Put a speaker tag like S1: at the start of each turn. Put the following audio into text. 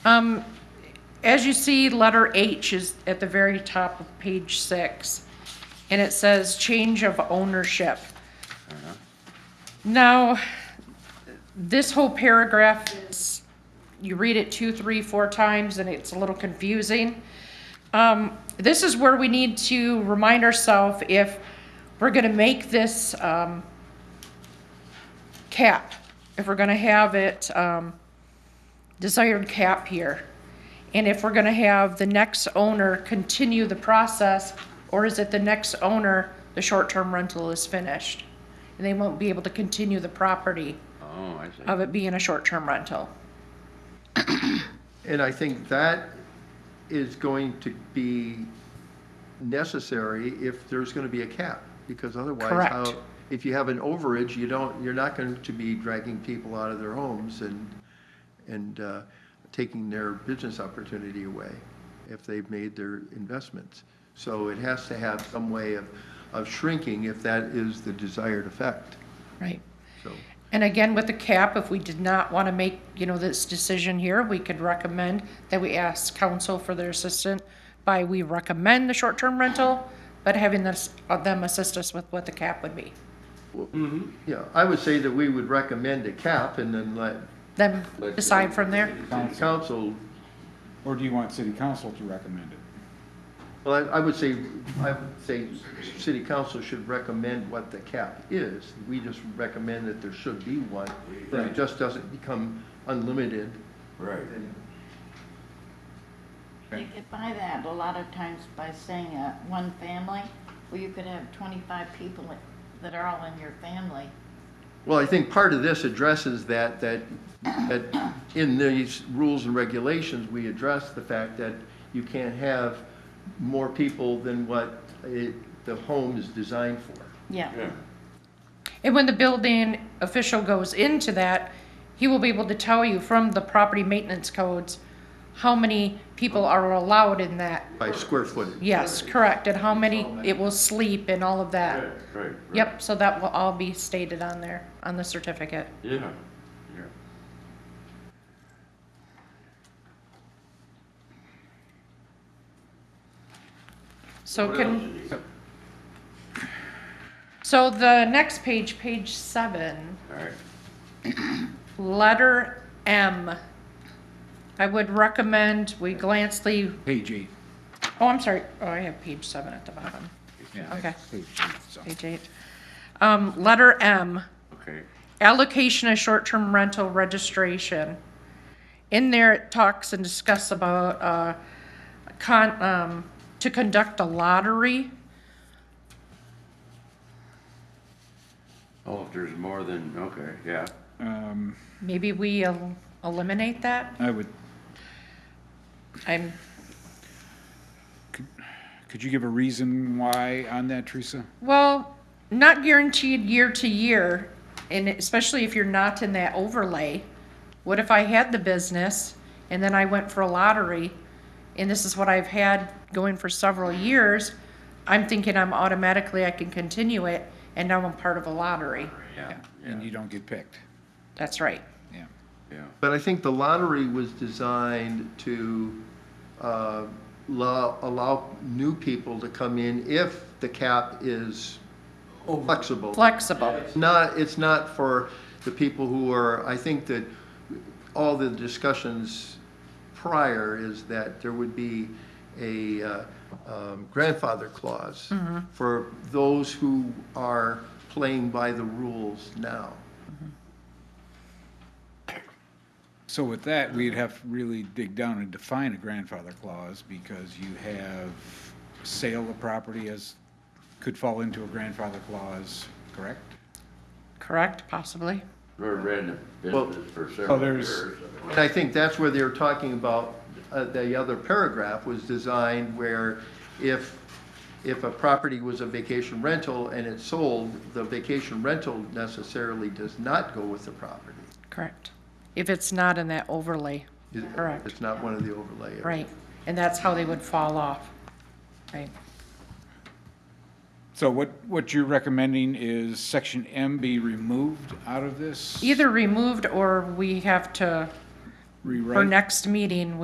S1: Um, as you see, letter H is at the very top of page six, and it says change of ownership. Now, this whole paragraph is, you read it two, three, four times, and it's a little confusing. Um, this is where we need to remind ourselves if we're gonna make this, um, cap, if we're gonna have it, um, desired cap here? And if we're gonna have the next owner continue the process, or is it the next owner, the short-term rental is finished? And they won't be able to continue the property
S2: Oh, I see.
S1: of it being a short-term rental.
S3: And I think that is going to be necessary if there's going to be a cap, because otherwise,
S1: Correct.
S3: how, if you have an overage, you don't, you're not going to be dragging people out of their homes and, and uh, taking their business opportunity away if they've made their investments. So it has to have some way of, of shrinking if that is the desired effect,
S1: Right.
S3: so.
S1: And again, with the cap, if we did not want to make, you know, this decision here, we could recommend that we ask council for their assistance by we recommend the short-term rental, but having this, uh, them assist us with what the cap would be.
S3: Yeah, I would say that we would recommend a cap and then let
S1: Then
S2: Let-
S1: decide from there.
S3: the council
S4: Or do you want city council to recommend it?
S3: Well, I I would say, I would say city council should recommend what the cap is. We just recommend that there should be one, that it
S4: Right.
S3: just doesn't become unlimited.
S2: Right.
S5: You get by that a lot of times by saying, uh, one family, well, you could have twenty-five people that are all in your family.
S3: Well, I think part of this addresses that, that, that in these rules and regulations, we address the fact that you can't have more people than what it, the home is designed for.
S5: Yeah,
S2: Yeah.
S1: And when the building official goes into that, he will be able to tell you from the property maintenance codes how many people are allowed in that.
S3: By square footage.
S1: Yes, correct, and how many it will sleep and all of that.
S2: Right, right.
S1: Yep, so that will all be stated on there, on the certificate.
S2: Yeah, yeah.
S1: So
S2: What
S1: can,
S2: else?
S1: so the next page, page seven,
S2: All right,
S1: letter M. I would recommend we glance the,
S4: Page eight.
S1: oh, I'm sorry, oh, I have page seven at the bottom.
S4: Yeah,
S1: Okay.
S4: page eight, so.
S1: Page eight. Um, letter M,
S2: okay.
S1: allocation of short-term rental registration. In there, it talks and discuss about, uh, con, um, to conduct a lottery.
S2: Oh, if there's more than, okay, yeah.
S4: Um,
S1: Maybe we el- eliminate that?
S4: I would,
S1: I'm,
S4: could you give a reason why on that, Teresa?
S1: well, not guaranteed year to year, and especially if you're not in that overlay. What if I had the business and then I went for a lottery and this is what I've had going for several years? I'm thinking I'm automatically, I can continue it and now I'm part of a lottery.
S2: Yeah,
S4: And
S2: yeah,
S4: you don't get picked,
S1: That's right.
S4: yeah.
S2: yeah.
S3: But I think the lottery was designed to uh, allow, allow new people to come in if the cap is flexible.
S1: Flexible.
S3: It's not, it's not for the people who are, I think that all the discussions prior is that there would be a uh, um, grandfather clause for those who are playing by the rules now.
S4: So with that, we'd have to really dig down and define a grandfather clause because you have sale of property as, could fall into a grandfather clause, correct?
S1: Correct, possibly.
S2: We ran the
S3: Well,
S2: business for several
S4: there's-
S2: years.
S3: And I think that's where they were talking about, uh, the other paragraph was designed where if, if a property was a vacation rental and it sold, the vacation rental necessarily does not go with the property.
S1: Correct. If it's not in that overlay.
S3: It-
S1: Correct.
S3: It's not one of the overlay areas.
S1: Right, and that's how they would fall off. Right,
S4: So what, what you're recommending is section M be removed out of this?
S1: either removed or we have to
S4: rewrite.
S1: for next meeting,